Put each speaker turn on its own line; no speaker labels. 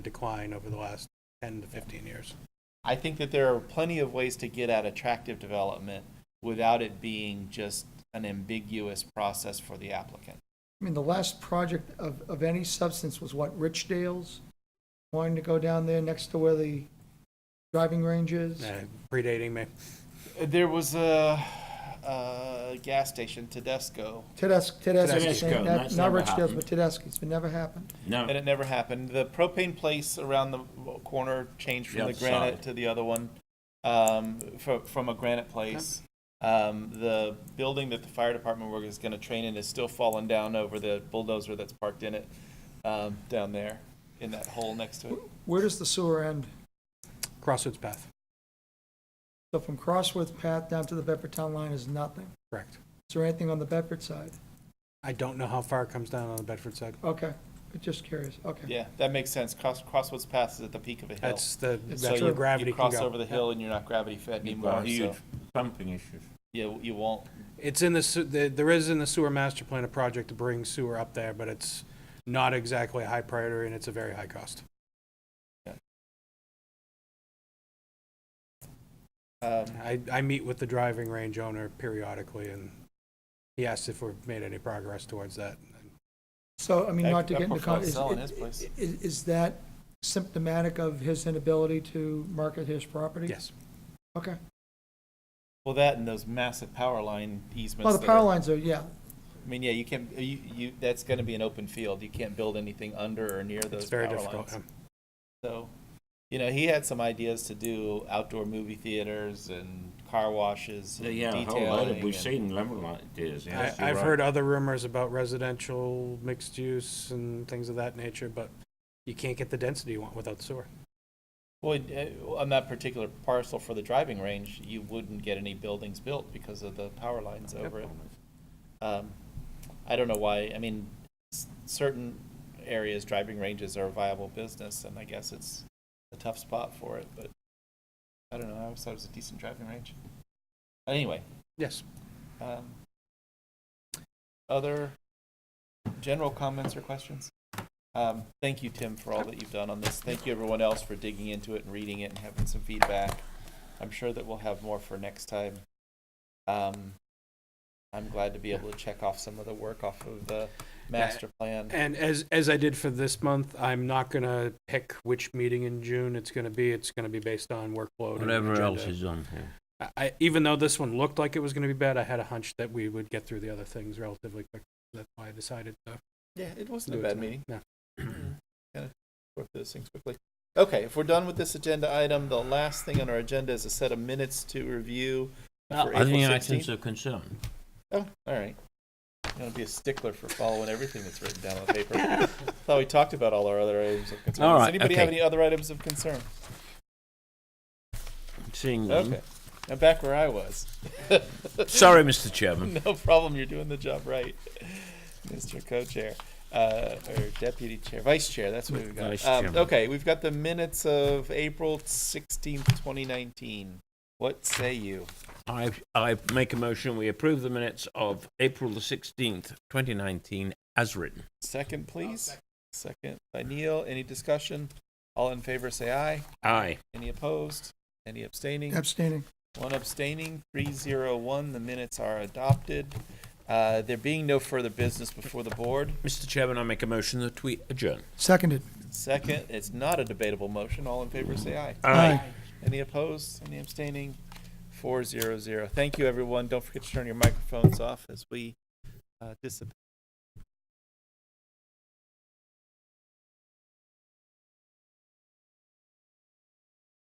decline over the last 10 to 15 years.
I think that there are plenty of ways to get at attractive development without it being just an ambiguous process for the applicant.
I mean, the last project of, of any substance was what, Richdale's? Wanting to go down there next to where the driving range is?
Uh, Predating me.
There was a, a gas station, Tedesco,
Tedesco, Tedesco's,
Tedesco,
not,
that's
not
never
Richdale's,
happened.
but Tedesco's, it never happened.
and
No,
it never happened. The propane place around the corner changed
The
from the
other
granite
side.
to the other one, um, from, from a granite place. Um, the building that the fire department work is gonna train in is still falling down over the bulldozer that's parked in it, um, down there, in that hole next to it.
Where does the sewer end?
Crossroads Path,
So from Crossworth Path down to the Bedford Town Line is nothing.
correct.
Is there anything on the Bedford side?
I don't know how far it comes down on the Bedford side.
Okay, just curious, okay.
Yeah, that makes sense. Cross, Crosswoods Pass is at the peak of a hill.
That's the, that's
It's
so
true.
where
you,
gravity
you
can go.
cross over the hill and you're not gravity fed
you've
anymore.
got
So
huge pumping issues.
yeah, you won't.
It's in the, se- the- there is in the sewer master plan a project to bring sewer up there, but it's not exactly a high priority and it's a very high cost.
Um,
I, I meet with the driving range owner periodically and he asks if we've made any progress towards that.
So, I mean,
That-
not to
that
get into,
profile
con- is,
selling his place.
is, is that symptomatic of his inability to market his property?
Yes,
Okay.
well, that and those massive power line easements.
Well, the
that
power
are-
lines are, yeah,
I mean, yeah, you can't. You, you that's going to be an open field. You can't build anything under or near those
it's very
power
difficult.
lines.
yeah.
So, you know, he had some ideas to do outdoor movie theaters and car washes. And
Yeah, a whole lot of,
detailing and-
we've seen level like this, yes,
I,
you're
I've
right.
heard other rumors about residential mixed use and things of that nature, but you can't get the density you want without the sewer.
Well, uh, on that particular parcel for the driving range, you wouldn't get any buildings built because of the power lines over it. Um, I don't know why, I mean, s- certain areas, driving ranges are a viable business, and I guess it's a tough spot for it, but I don't know, I always thought it was a decent driving range. Anyway,
Yes,
um, other general comments or questions? Um, thank you, Tim, for all that you've done on this. Thank you, everyone else, for digging into it and reading it and having some feedback. I'm sure that we'll have more for next time. Um, I'm glad to be able to check off some of the work off of the master plan.
and as, as I did for this month, I'm not gonna pick which meeting in June it's gonna be. It's gonna be based on workload. and
Whatever else
agenda.
is on here.
I- I, even though this one looked like it was gonna be bad, I had a hunch that we would get through the other things relatively quick. That's why I decided to
Yeah, it wasn't
do
a
it
bad
tonight.
meeting.
No.
work through those things quickly. Okay, if we're done with this agenda item, the last thing on our agenda is a set of minutes to review for
Other
April
items
sixteenth.
of concern.
Oh, all right. You want to be a stickler for following everything that's written down on the paper. Thought we talked about all our other items of concern.
All
Does
right,
anybody have
okay.
any other items of concern?
Seeing
Okay.
them.
I'm back where I was.
Sorry, Mr. Chairman.
No problem. You're doing the job right, Mr. Co-chair uh, or Deputy Chair, Vice Chair. That's what we've got.
Vice
Um,
Chairman.
okay, we've got the minutes of April sixteenth, 2019. What say you?
I, I make a motion, we approve the minutes of April the 16th, 2019, as written.
Second, please. Second by Neil. Any discussion? All in favor, say aye.
Aye.
Any opposed? Any abstaining?
abstaining.
One abstaining, three zero one. The minutes are adopted. Uh, There being no further business before the board,
Mr. Chairman, I make a motion that we adjourn.
Seconded.
second, it's not a debatable motion. All in favor, say aye. Any opposed? Any abstaining? Four zero zero. Thank you, everyone. Don't forget to turn your microphones off as we uh, dissipate.